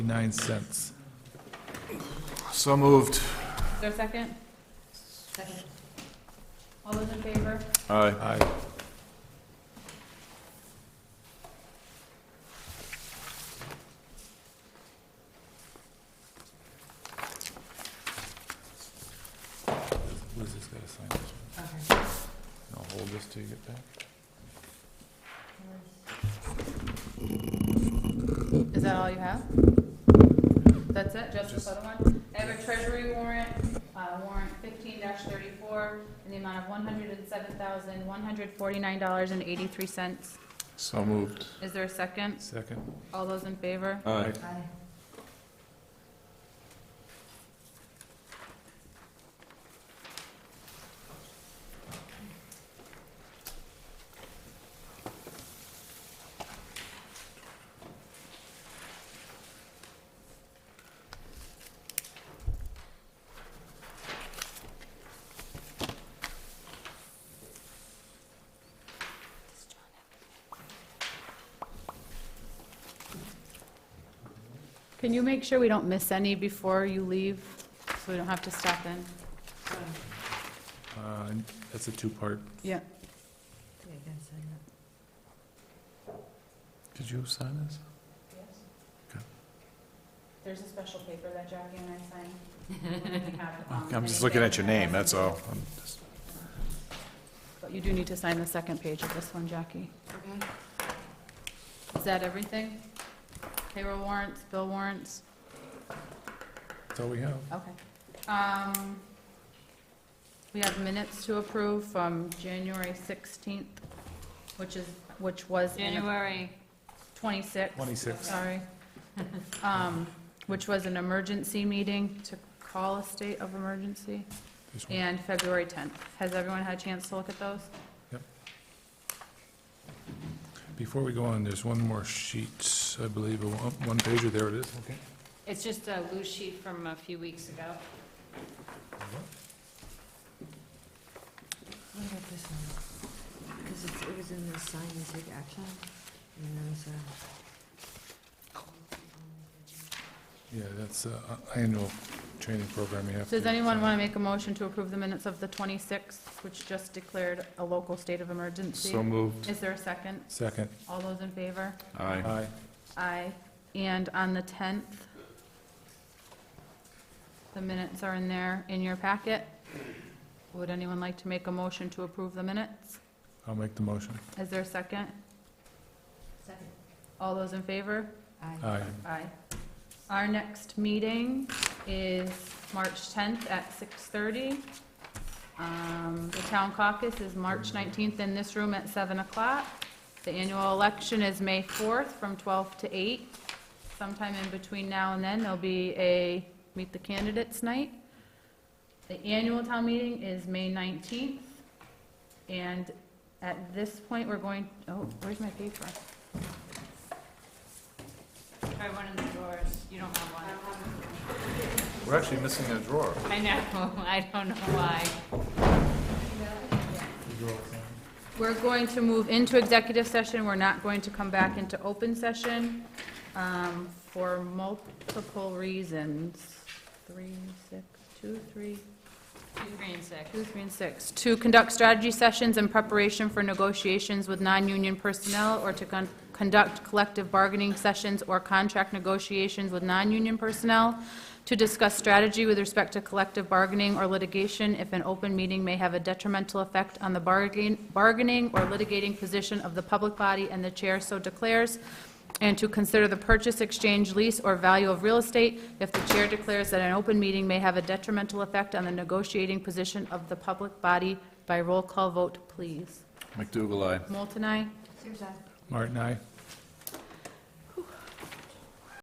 nine cents. So moved. Is there a second? Second. All those in favor? Aye. Aye. Liz has got to sign this one. Okay. And I'll hold this till you get back. Is that all you have? That's it, just this other one? I have a treasury warrant, uh, warrant fifteen thirty-four, in the amount of one hundred and seven thousand, one hundred forty-nine dollars and eighty-three cents. So moved. Is there a second? Second. All those in favor? Aye. Aye. Can you make sure we don't miss any before you leave, so we don't have to stop in? Uh, That's a two-part. Yeah. Did you sign this? Okay. There's a special paper that Jackie and I signed. I'm just looking at your name, that's all. I'm just- But you do need to sign the second page of this one, Jackie. Is that everything? Payroll warrants, bill warrants? That's all we have. Okay. Um, We have minutes to approve from January 16th, which is, which was in a January, 26. 26. Sorry. Um, Which was an emergency meeting to call a state of emergency, This one. and February 10th. Has everyone had a chance to look at those? Before we go on, there's one more sheet, I believe, a one- one pager, there it is. Okay. it's just a loose sheet from a few weeks ago. What about this one? Because it was in the sign and take action, and then there was uh, a. Yeah, that's uh, annual training program you have to. Does anyone want to make a motion to approve the minutes of the 26th, which just declared a local state of emergency? So moved. Is there a second? Second. All those in favor? Aye. Aye. Aye. And on the 10th, the minutes are in there, in your packet. Would anyone like to make a motion to approve the minutes? I'll make the motion. Is there a second? Second. All those in favor? Aye. Aye. Aye. Our next meeting is March 10th at 6:30. Um, The town caucus is March 19th in this room at 7 o'clock. The annual election is May 4th from 12 to 8. Sometime in between now and then, there'll be a Meet the Candidates Night. The annual town meeting is May 19th. And at this point, we're going, oh, where's my paper? Try one of the drawers, you don't have one. We're actually missing a drawer. I know, I don't know why. We're going to move into executive session, we're not going to come back into open session um, for multiple reasons. Three, six, two, three, Two green six. two, three, and six. To conduct strategy sessions in preparation for negotiations with non-union personnel or to con- conduct collective bargaining sessions or contract negotiations with non-union personnel, to discuss strategy with respect to collective bargaining or litigation if an open meeting may have a detrimental effect on the bargain- bargaining or litigating position of the public body and the chair so declares, and to consider the purchase, exchange, lease, or value of real estate if the chair declares that an open meeting may have a detrimental effect on the negotiating position of the public body by roll call vote, please. McDougal, aye. Moulton, aye. Seriously? Martin, aye.